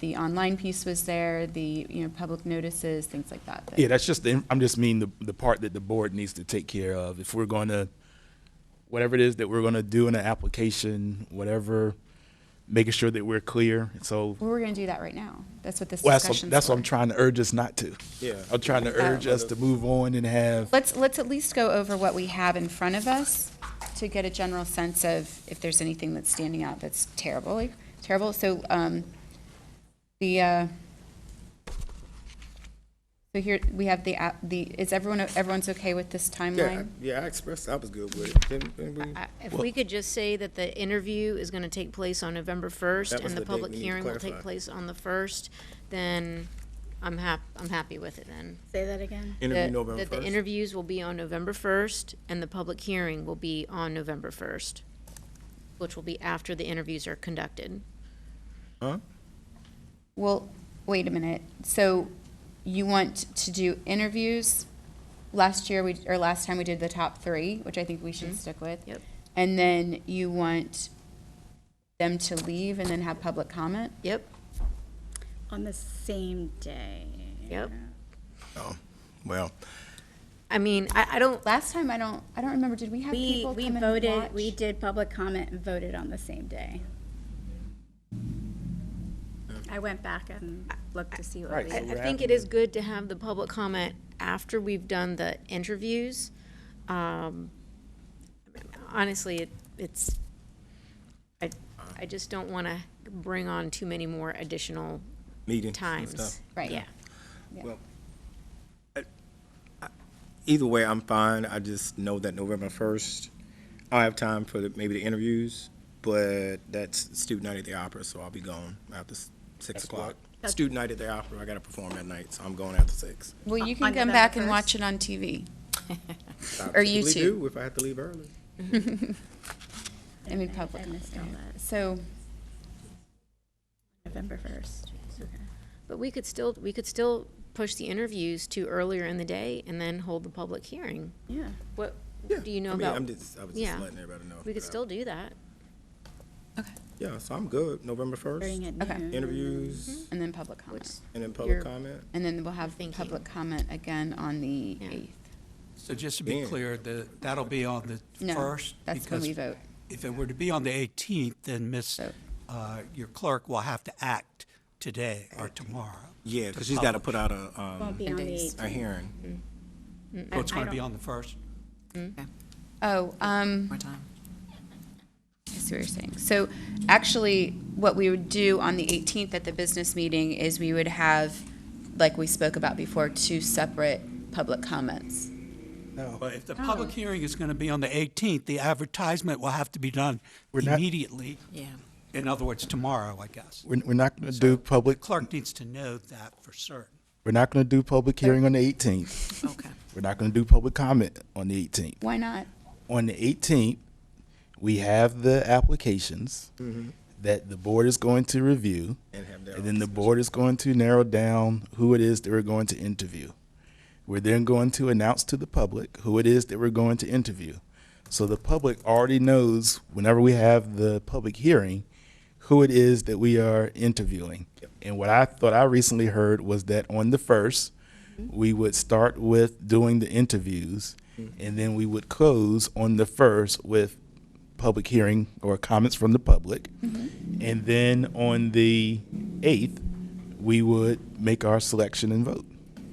The online piece was there, the, you know, public notices, things like that. that- Yeah, that's just, the I'm just mean the, the part that the board needs to take care of. If we're going to, whatever it is that we're going to do in an application, whatever, making sure that we're clear. So, Well, We're going to do that right now. That's what this well, that's, discussion's what- that's what for. I'm trying to urge us not to. Yeah. I'm trying to urge us to move on and have, Let's, let's at least go over what we have in front of us to get a general sense of if there's anything that's standing out that's terrible, like, terrible. So, um, the, uh, so here, we have the, app- the, is everyone, everyone's okay with this Yeah, I- timeline? yeah, I expressed, I was good with it. Didn't- didn't we- Uh, I- If we could just say that the interview is going to take place on November 1st That was and the the date public we need to hearing will take clarify. place on the 1st, then I'm hap, I'm happy with it then. Say that again. Interview That- November That the first. interviews will be on November 1st and the public hearing will be on November 1st, which will be after the interviews are conducted. Well, wait a minute. So you want to do interviews? Last year, we, or last time we did the top three, which I think we Mm-hmm. should stick with. Yep. And then you want them to leave and then have public comment? Yep, On the same day. yep. Oh, Well, I mean, I, I don't, Last time, I don't, I don't remember, did we have We, people come we and voted, we watch? did public comment and voted on the same day. I went back and looked to see what we. I, I think it is good to have the public comment after we've done the interviews. Um, Honestly, it, it's, I, I just don't want to bring on too many more additional meeting. times. Right. Yeah. Either way, I'm fine. I just know that November first, I'll have time for the, maybe the interviews, but that's student night at the opera, so I'll be gone after s- six o'clock. Student night at the opera, I gotta perform that night, so I'm going after six. Well, you On can come November back and 1st? watch it on TV. I Or you typically two. do If I have to leave early. I mean, public I missed all comment. that. So, November first. But we could still, we could still push the interviews to earlier in the day and then hold the public hearing. Yeah. What, Yeah, do you know I mean, about? I'm just, I was yeah. just letting everybody know. We could Uh, still do that. Yeah, so I'm good. November first, During at Okay. noon. interviews and then public comment. and then Your- public comment. And then we'll have Thinking. public comment again on the Yeah. 8th. So just to be Yeah. clear, the, that'll be on the No, first? that's when because we vote. If it were to be on the 18th, then Miss, uh, your clerk will have to act today or tomorrow. Yeah, to because she's got to publish. put out a, um, Won't be on the days. eighteenth. a hearing. So it's I- I going to be don't- on the first? Oh, um. more time. I see what you're saying. So actually, what we would do on the 18th at the business meeting is we would have, like we spoke about before, two separate public comments. But if the Oh. public hearing is going to be on the 18th, the advertisement will have to be done immediately. Yeah. In other words, tomorrow, I guess. We're, we're not going to do public, Clerk needs to know that for certain. we're not going to do public hearing on the 18th. Okay. We're not going to do public comment on the 18th. Why not? on the 18th, we have the applications that the board is going to review. And have their And then the board is going to narrow down who it is that we're going to interview. We're then going to announce to the public who it is that we're going to interview. So the public already knows whenever we have the public hearing, who it is that we are interviewing. And what I thought I recently heard was that on the first, we would start with doing the interviews and then we would close on the first with public hearing or comments from the public. And then on the eighth, we would make our selection and vote.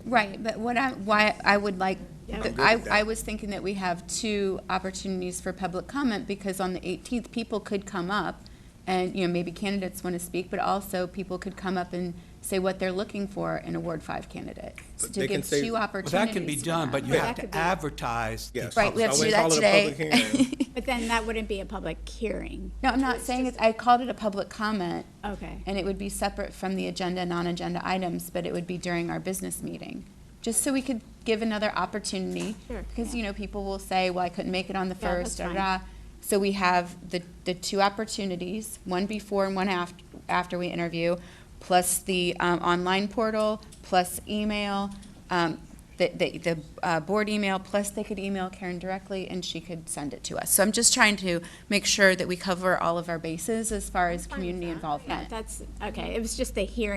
Right, but what I, why I would like, good I, with that. I was thinking that we have two opportunities for public comment because on the 18th, people could come up and, you know, maybe candidates want to speak, but also people could come up and say what they're looking for in a Ward 5 candidate. So But To they can give say- two Well, Well, opportunities. that can be for done, them. but you Yeah. have That could to be- advertise. the Yes. Right, we have I to do wouldn't that call it a today. public hearing. But then that wouldn't be a public hearing. No, I'm not saying it's, I called it a public comment, Okay. and it would be separate from the agenda, non-agenda items, but it would be during our business meeting, just so we could give another opportunity. Sure, Because, yeah. you know, people will say, well, I couldn't make it on the Yeah, first, that's fine. da-da. So we have the, the two opportunities, one before and one after, after we interview, plus the um, online portal, plus email, um, the, the, the uh, board email, plus they could email Karen directly and she could send it to us. So I'm just trying to make sure that we cover all of our bases as far as community Yeah, involvement. That's, okay, it was just the hearing